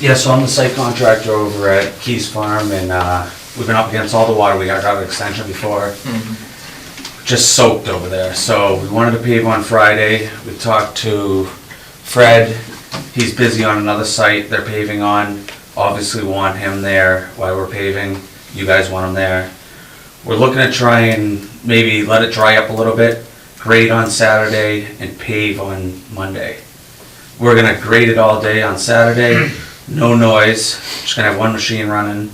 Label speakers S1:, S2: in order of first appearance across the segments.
S1: Yeah, so I'm the site contractor over at Keys Farm, and uh, we've been up against all the water, we got drought extension before, just soaked over there, so we wanted to pave on Friday, we talked to Fred, he's busy on another site they're paving on, obviously want him there while we're paving, you guys want him there. We're looking to try and maybe let it dry up a little bit, grade on Saturday and pave on Monday. We're gonna grade it all day on Saturday,
S2: Hmm.
S1: no noise, just gonna have one machine running.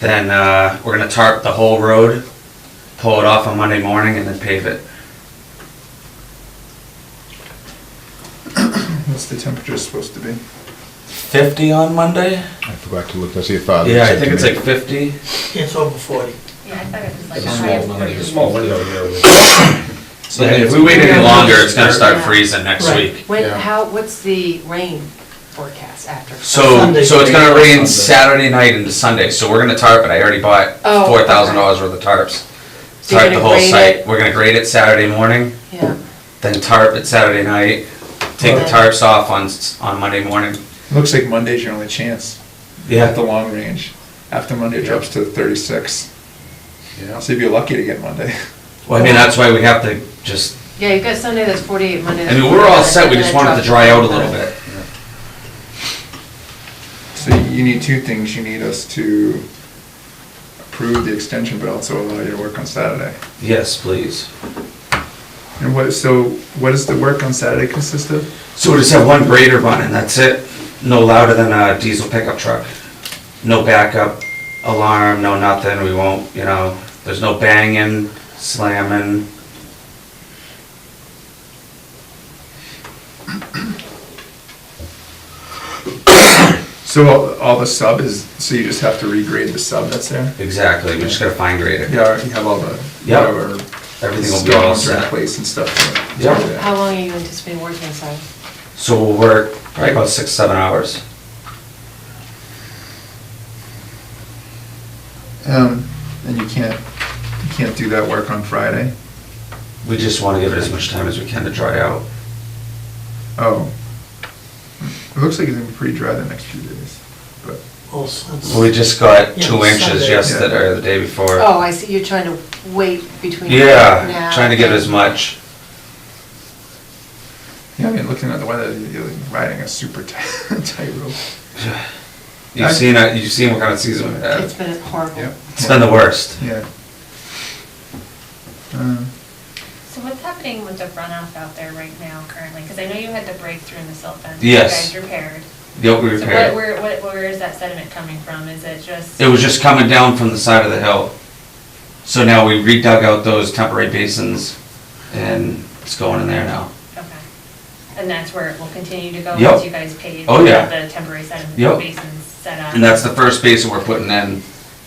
S1: Then, uh, we're gonna tarp the whole road, pull it off on Monday morning and then pave it.
S3: What's the temperature supposed to be?
S1: Fifty on Monday?
S4: I forgot to look to see if father.
S1: Yeah, I think it's like fifty.
S5: It's over forty.
S2: Yeah, I thought it was like.
S6: It's
S2: a
S6: a
S2: high
S6: small
S2: of
S6: window,
S2: 40.
S6: it's a small window here.
S1: So if we wait any longer, it's gonna start freezing next
S5: Right.
S1: week.
S2: When,
S6: Yeah.
S2: how, what's the rain forecast after?
S1: So,
S5: Sunday.
S1: so it's gonna
S6: Sunday.
S1: rain Saturday night into Sunday, so we're gonna tarp it, I already bought
S2: Oh,
S1: four thousand dollars worth of tarps.
S2: So you're
S1: Tarp the
S2: gonna
S1: whole
S2: grade
S1: site,
S2: it?
S1: we're gonna grade it Saturday morning,
S2: Yeah,
S1: then tarp it Saturday night, take the
S2: Right.
S1: tarps off on, s- on Monday morning.
S3: Looks like Monday's your only chance. At the long range. After Monday it drops to thirty-six.
S6: Yeah.
S3: So you'd be lucky to get Monday.
S1: Well, I mean, that's why we have to just,
S2: yeah, you've got Sunday that's forty-eight, Monday
S1: I
S2: that's.
S1: mean, we're all
S2: 49,
S1: set, we
S2: and
S1: just
S2: then
S1: want it to
S2: drop-
S1: dry out a little bit.
S3: So you need two things. You need us to approve the extension, but also allow you to work on Saturday.
S1: Yes, please.
S3: And what, so what does the work on Saturday consist of?
S1: So we just have one grader running, that's it. No louder than a diesel pickup truck. No backup alarm, no nothing, we won't, you know, there's no banging, slamming.
S3: So all, all the sub is, so you just have to regrade the sub that's there?
S1: Exactly, we just gotta fine grade it.
S3: Yeah, you have all the,
S1: Yeah.
S3: whatever.
S1: Everything will be all
S3: stones in
S1: set.
S3: place and stuff.
S1: Yeah.
S2: How long are you anticipating working inside?
S1: So we'll work probably about six, seven hours.
S3: Um, and you can't, you can't do that work on Friday?
S1: We just wanna give it as much time as we can to dry out.
S3: Oh. It looks like it's gonna be pretty dry the next few days, but,
S5: Well, since-
S1: We just got
S5: Yeah,
S1: two inches
S5: Sunday.
S1: yesterday, or the day before.
S2: Oh, I see, you're trying to wait between.
S1: Yeah,
S2: now
S1: trying to get as
S2: and-
S1: much.
S3: yeah, I mean, looking at the weather, you're riding a super tight tight rope.
S1: You've seen, it- you've seen what kind of season we
S2: It's
S1: had.
S2: been horrible.
S1: It's been the worst.
S3: Yeah. Uh,
S7: So what's happening with the runoff out there right now currently? Because I know you had the breakthrough in the silt fence. that
S1: Yes.
S7: You guys repaired.
S1: Yep, we
S7: So what,
S1: repaired.
S7: where, what, where is that sediment coming from? Is it just?
S1: It was just coming down from the side of the hill. So now we redug out those temporary basins and it's going in there now.
S7: Okay. And that's where it will continue to go
S1: Yep.
S7: once you guys pave?
S1: Oh, yeah.
S7: The temporary sediment
S1: Yep.
S7: basins set up?
S1: And that's the first basin we're putting in.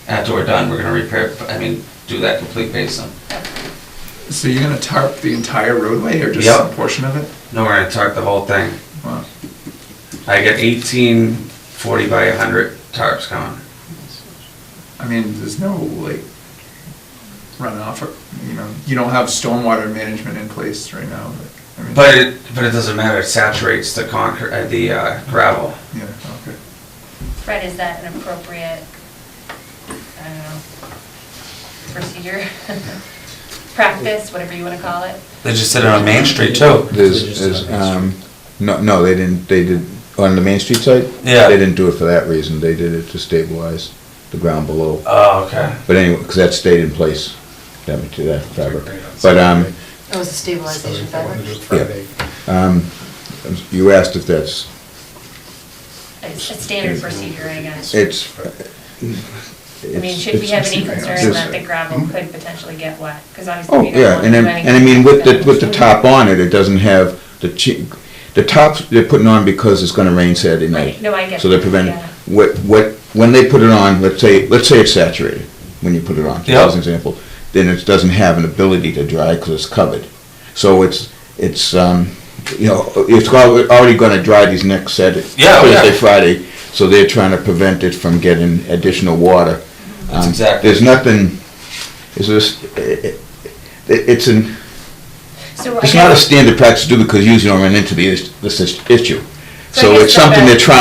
S1: After we're done, we're gonna repair, I mean, do that complete basin.
S3: So you're gonna tarp the entire roadway or just
S1: Yep.
S3: some portion of it?
S1: No, we're gonna tarp the whole thing.
S3: Wow.
S1: I got eighteen forty by hundred tarps coming.
S3: I mean, there's no like runoff or, you know, you don't have stormwater management in place right now, but. I mean-
S1: But it, but it doesn't matter, it saturates the concrete, uh, the uh, gravel.
S3: Yeah, okay.
S7: Fred, is that an appropriate, I don't know, procedure? Practice, whatever you want to call it?
S1: They just did it on Main Street too.
S4: There's, there's, um, no, no, they didn't, they did, on the Main Street site?
S1: Yeah.
S4: They didn't do it for that reason, they did it to stabilize the ground below.
S1: Oh, okay.
S4: But anyway, because that stayed in place, that, that fabric. But, um,
S2: It was a stabilization fabric.
S4: um, you asked if that's,
S7: It's a standard procedure, I guess.
S4: it's.
S7: I mean, should we have any concern
S4: it's-
S7: that the gravel could potentially get wet? Because obviously
S4: Oh,
S7: we don't
S4: yeah,
S7: want
S4: and
S7: to
S4: then,
S7: do anything.
S4: and I mean, with the,
S7: that-
S4: with the top on it, it doesn't have the chi, the tops they're putting on because it's gonna rain Saturday night.
S7: Right, no, I get
S4: So they're
S7: that,
S4: preventing,
S7: yeah.
S4: what, what, when they put it on, let's say, let's say it's saturated, when you put it on,
S1: Yeah.
S4: as an example, then it doesn't have an ability to dry because it's covered. So it's, it's, um, you know, it's al- already gonna dry these next Saturday,
S1: Yeah, oh, yeah.
S4: Thursday, Friday, so they're trying to prevent it from getting additional water.
S1: That's
S4: Um,
S1: exactly-
S4: There's nothing, it's just, eh, eh, it's an,
S7: So I
S4: it's not a
S7: guess-
S4: standard practice to do because usually you don't run into the, is- this is- issue.
S7: So
S4: So
S7: I guess
S4: it's
S7: the
S4: something they're
S7: best-
S4: trying